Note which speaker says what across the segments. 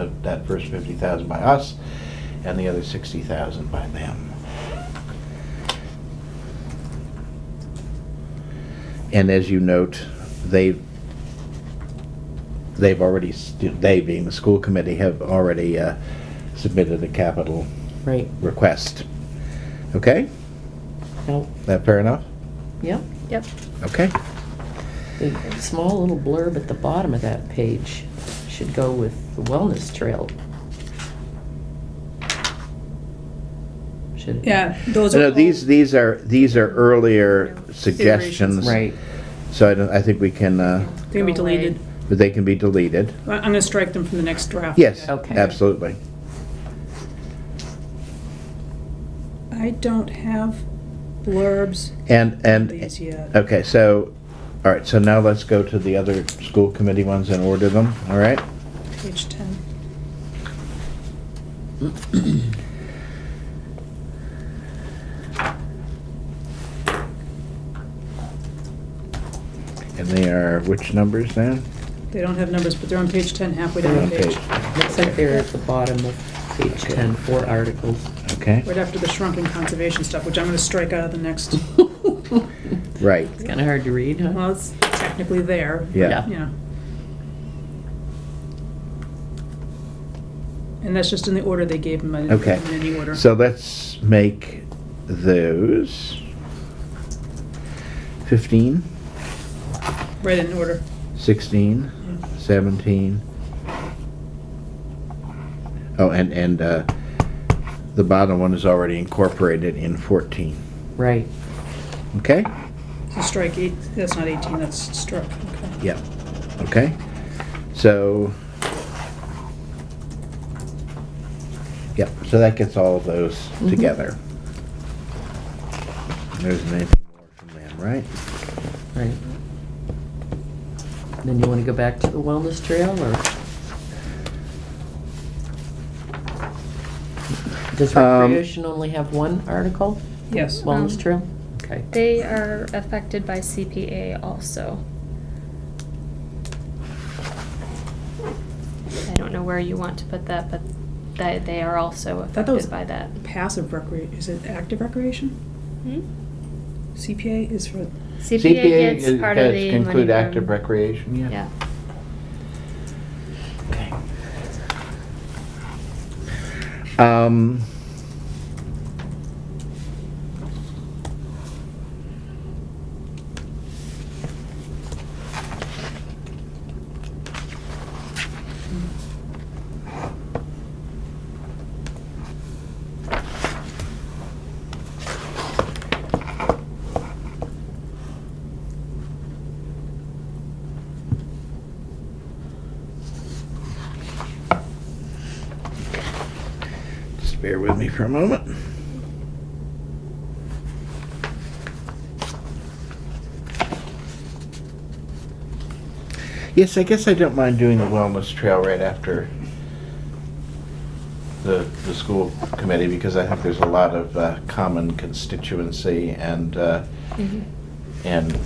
Speaker 1: that, that first fifty thousand by us and the other sixty thousand by them. And as you note, they, they've already, s- they being the school committee, have already uh, submitted a capital
Speaker 2: Right,
Speaker 1: request. Okay?
Speaker 2: no,
Speaker 1: That fair enough?
Speaker 2: yep,
Speaker 3: Yep.
Speaker 1: Okay?
Speaker 2: the small little blurb at the bottom of that page should go with the wellness trail. Should.
Speaker 3: Yeah, those are
Speaker 1: No,
Speaker 3: all.
Speaker 1: these, these are, these are earlier suggestions.
Speaker 2: Right,
Speaker 1: So I don't, I think we can, uh,
Speaker 3: They're gonna be
Speaker 4: Go away.
Speaker 3: deleted.
Speaker 1: but they can be deleted.
Speaker 3: I- I'm gonna strike them from the next draft.
Speaker 1: Yes,
Speaker 2: Okay.
Speaker 1: absolutely.
Speaker 3: I don't have blurbs
Speaker 1: And,
Speaker 3: on
Speaker 1: and. oh.
Speaker 3: these yet.
Speaker 1: Okay, so, all right, so now let's go to the other school committee ones and order them, all right?
Speaker 3: Page ten.
Speaker 1: And they are which numbers now?
Speaker 3: They don't have numbers, but they're on page ten, halfway down the
Speaker 1: Okay,
Speaker 3: page.
Speaker 2: looks like they're at the bottom of page
Speaker 1: Okay.
Speaker 2: ten, four articles.
Speaker 1: Okay,
Speaker 3: Right after the shrunken conservation stuff, which I'm gonna strike out of the next,
Speaker 1: right,
Speaker 2: It's kinda hard to read, huh?
Speaker 3: well, it's technically there. but,
Speaker 1: Yeah.
Speaker 3: You know. And that's just in the order they gave them, I didn't put
Speaker 1: okay.
Speaker 3: them in any order.
Speaker 1: So let's make those fifteen,
Speaker 3: Right in order.
Speaker 1: sixteen, seventeen. Oh, and, and, uh, the bottom one is already incorporated in fourteen,
Speaker 2: Right,
Speaker 1: okay?
Speaker 3: So strike eight, that's not eighteen, that's struck, okay.
Speaker 1: Yeah, okay. So, yeah, so that gets all of those
Speaker 2: Mhm.
Speaker 1: together. There isn't anything more from them, right?
Speaker 2: right. Then you wanna go back to the wellness trail, or? Does
Speaker 1: Um,
Speaker 2: recreation only have one article?
Speaker 3: Yes.
Speaker 2: Wellness
Speaker 4: Um,
Speaker 2: trail? Okay.
Speaker 4: They are affected by CPA also. I don't know where you want to put that, but that they are also
Speaker 3: thought that was-
Speaker 4: affected by that.
Speaker 3: Passive recre, is it active recreation? CPA is for,
Speaker 4: CPA gets part of the money from-
Speaker 1: recreation,
Speaker 4: Yeah,
Speaker 1: Okay. Um. Just bear with me for a moment. Yes, I guess I don't mind doing the wellness trail right after the, the school committee because I think there's a lot of uh, common constituency and, uh,
Speaker 4: Mhm.
Speaker 3: Mm-hmm.
Speaker 1: and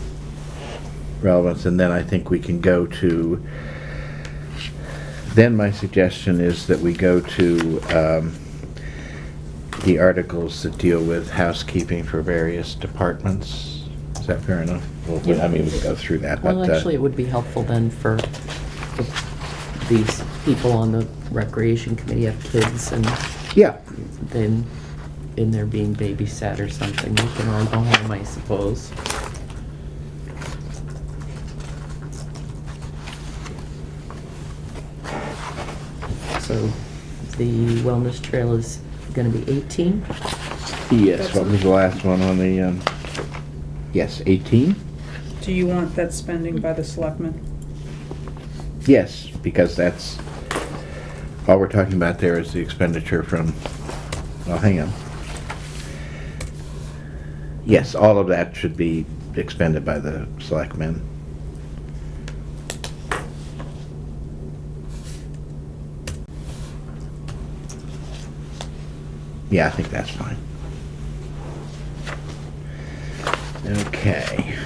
Speaker 1: relevance. And then I think we can go to, then my suggestion is that we go to um, the articles that deal with housekeeping for various departments. Is that fair enough? Well, we- I mean, we can go through that, but.
Speaker 2: Well,
Speaker 1: uh,
Speaker 2: actually, it would be helpful then for the- these people on the recreation committee have kids and
Speaker 1: Yeah,
Speaker 2: then, and they're being babysat or something, they can all go home, I suppose. So the wellness trail is gonna be 18?
Speaker 1: yes, what was the last one on the, um, yes, 18?
Speaker 3: do you want that spending by the selectmen?
Speaker 1: Yes, because that's, all we're talking about there is the expenditure from, well, hang on. Yes, all of that should be expended by the selectmen. Yeah, I think that's fine. Okay.